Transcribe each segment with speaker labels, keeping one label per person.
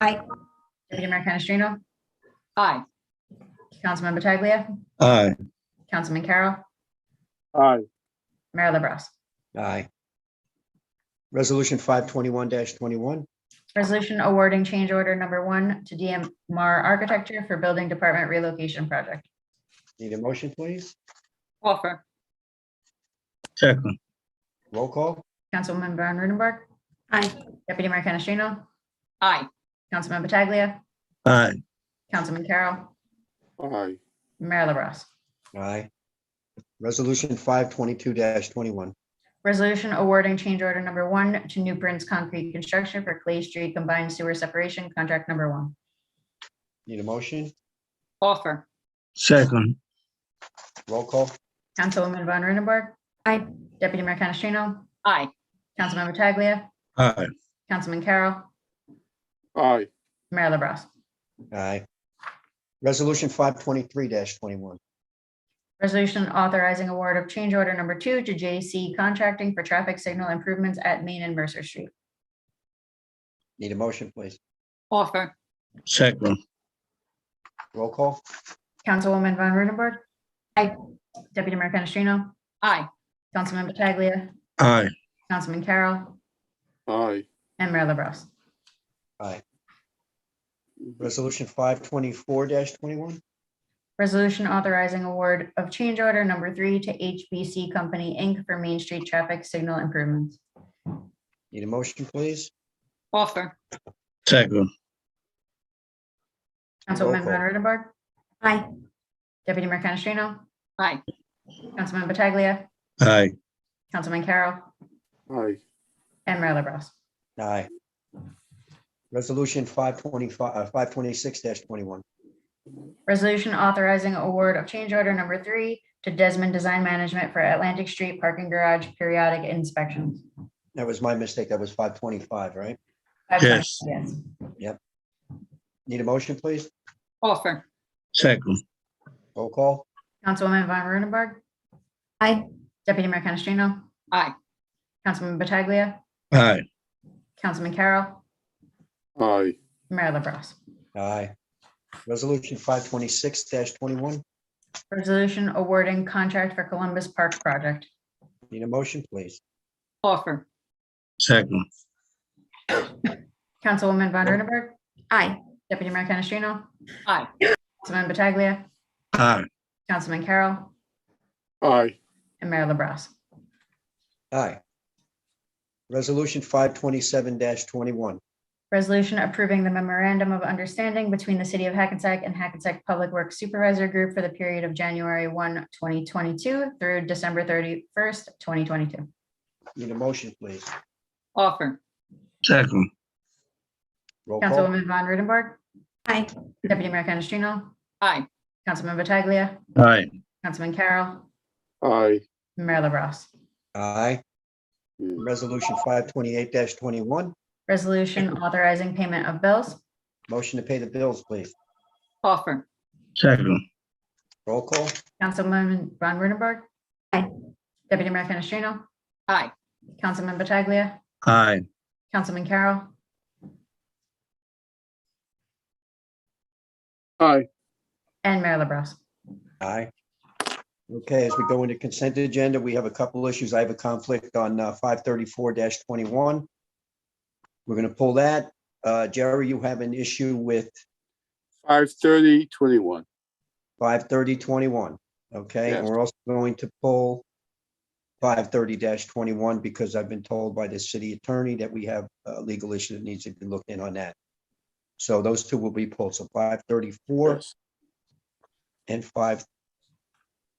Speaker 1: Aye.
Speaker 2: Deputy Mayor Canestrino?
Speaker 3: Aye.
Speaker 2: Councilman Pataglia?
Speaker 4: Aye.
Speaker 2: Councilman Carroll?
Speaker 5: aye,
Speaker 2: Mayor LaBrus?
Speaker 6: Aye. Resolution five twenty-one twenty-one,
Speaker 2: Resolution awarding change order number one to DMR Architecture for Building Department Relocation Project.
Speaker 6: need a motion, please?
Speaker 3: Offer.
Speaker 4: Second.
Speaker 6: Roll call?
Speaker 2: Councilwoman Von Rudenberg?
Speaker 1: Aye.
Speaker 2: Deputy Mayor Canestrino?
Speaker 3: Aye.
Speaker 2: Councilman Pataglia?
Speaker 4: Aye.
Speaker 2: Councilman Carroll?
Speaker 5: aye,
Speaker 2: Mayor LaBrus?
Speaker 6: Aye. Resolution five twenty-two twenty-one,
Speaker 2: Resolution awarding change order number one to New Prince Concrete Construction for Clay Street Combined Sewer Separation Contract Number One.
Speaker 6: need a motion?
Speaker 3: Offer.
Speaker 4: Second.
Speaker 6: Roll call?
Speaker 2: Councilwoman Von Rudenberg?
Speaker 1: Aye.
Speaker 2: Deputy Mayor Canestrino?
Speaker 3: Aye.
Speaker 2: Councilman Pataglia?
Speaker 4: Aye.
Speaker 2: Councilman Carroll?
Speaker 5: aye,
Speaker 2: Mayor LaBrus?
Speaker 6: Aye. Resolution five twenty-three twenty-one,
Speaker 2: Resolution authorizing award of change order number two to JC Contracting for traffic signal improvements at Main and Mercer Street.
Speaker 6: need a motion, please?
Speaker 3: Offer.
Speaker 4: Second.
Speaker 6: Roll call?
Speaker 2: Councilwoman Von Rudenberg.
Speaker 1: Aye.
Speaker 2: Deputy Mayor Canestrino.
Speaker 3: Aye.
Speaker 2: Councilman Pataglia.
Speaker 4: Aye.
Speaker 2: Councilman Carroll.
Speaker 5: aye.
Speaker 2: And Mayor LaBrus.
Speaker 6: Resolution five twenty-four twenty-one,
Speaker 2: Resolution authorizing award of change order number three to HBC Company, Inc. for Main Street traffic signal improvements.
Speaker 6: need a motion, please?
Speaker 3: Offer.
Speaker 4: Second.
Speaker 2: Councilwoman
Speaker 6: Roll call.
Speaker 2: Von Rudenberg.
Speaker 1: Aye.
Speaker 2: Deputy Mayor Canestrino.
Speaker 3: Aye.
Speaker 2: Councilman Pataglia.
Speaker 4: Aye.
Speaker 2: Councilman Carroll.
Speaker 5: Aye,
Speaker 2: And Mayor LaBrus.
Speaker 6: Aye. Resolution five twenty-five, uh, five twenty-six twenty-one,
Speaker 2: Resolution authorizing award of change order number three to Desmond Design Management for Atlantic Street Parking Garage periodic inspections.
Speaker 6: that was my mistake, that was five twenty-five, right?
Speaker 4: Yes.
Speaker 2: Yes.
Speaker 6: Need a motion, please?
Speaker 3: Offer.
Speaker 4: Second.
Speaker 6: Roll call?
Speaker 2: Councilwoman Von Rudenberg.
Speaker 1: Aye.
Speaker 2: Deputy Mayor Canestrino.
Speaker 3: Aye.
Speaker 2: Councilman Pataglia.
Speaker 4: Aye.
Speaker 2: Councilman Carroll.
Speaker 5: aye,
Speaker 2: Mayor LaBrus.
Speaker 6: Aye. Resolution five twenty-six twenty-one,
Speaker 2: Resolution awarding contract for Columbus Park Project.
Speaker 6: need a motion, please?
Speaker 3: Offer.
Speaker 4: Second.
Speaker 2: Councilwoman Von Rudenberg.
Speaker 1: Aye.
Speaker 2: Deputy Mayor Canestrino.
Speaker 3: Aye.
Speaker 2: Councilman Pataglia.
Speaker 4: Aye.
Speaker 2: Councilman Carroll.
Speaker 5: aye,
Speaker 2: And Mayor LaBrus.
Speaker 6: Aye. Resolution five twenty-seven twenty-one,
Speaker 2: Resolution approving the memorandum of understanding between the city of Hackensack and Hackensack Public Works Supervisor Group for the period of January 1, 2022 through December 31st, 2022.
Speaker 6: need a motion, please?
Speaker 3: Offer.
Speaker 4: Second.
Speaker 6: Roll call?
Speaker 2: Councilwoman Von Rudenberg.
Speaker 1: Aye.
Speaker 2: Deputy Mayor Canestrino.
Speaker 3: Aye.
Speaker 2: Councilman Pataglia.
Speaker 4: Aye.
Speaker 2: Councilman Carroll.
Speaker 5: aye.
Speaker 2: Mayor LaBrus.
Speaker 6: Aye. Resolution five twenty-eight twenty-one,
Speaker 2: Resolution authorizing payment of bills.
Speaker 6: motion to pay the bills, please?
Speaker 3: Offer.
Speaker 4: Second.
Speaker 6: Roll call?
Speaker 2: Councilwoman Von Rudenberg.
Speaker 1: Aye.
Speaker 2: Deputy Mayor Canestrino.
Speaker 3: Aye.
Speaker 2: Councilman Pataglia.
Speaker 4: Aye.
Speaker 2: Councilman Carroll.
Speaker 5: Aye,
Speaker 2: And Mayor LaBrus.
Speaker 6: Aye. Okay, as we go into consent agenda, we have a couple issues. I have a conflict on uh, five thirty-four twenty-one. We're going to pull that. Uh, Jerry, you have an issue with
Speaker 5: five thirty, twenty-one,
Speaker 6: five thirty twenty-one, okay? And
Speaker 5: Yes.
Speaker 6: we're also going to pull five thirty twenty-one because I've been told by the city attorney that we have a legal issue that needs to be looked in on that. So those two will be pulled. So five thirty-four
Speaker 5: yes,
Speaker 6: and five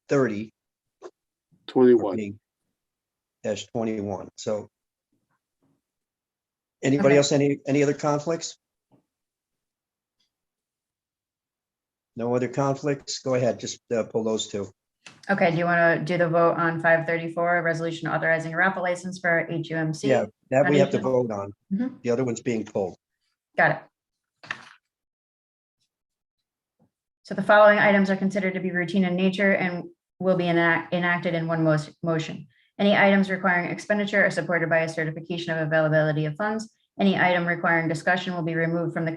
Speaker 6: thirty
Speaker 5: twenty-one.
Speaker 6: Dash twenty-one, so. Anybody
Speaker 2: Okay.
Speaker 6: else, any, any other conflicts? No other conflicts? Go ahead, just uh, pull those two.
Speaker 2: Okay, do you want to do the vote on five thirty-four, resolution authorizing a raffle license for HUMC?
Speaker 6: Yeah, that we have to
Speaker 2: Foundation?
Speaker 6: vote on.
Speaker 2: Mhm.
Speaker 6: The other one's being pulled.
Speaker 2: Got it. So the following items are considered to be routine in nature and will be enac- enacted in one most motion. Any items requiring expenditure are supported by a certification of availability of funds. Any item requiring discussion will be removed from the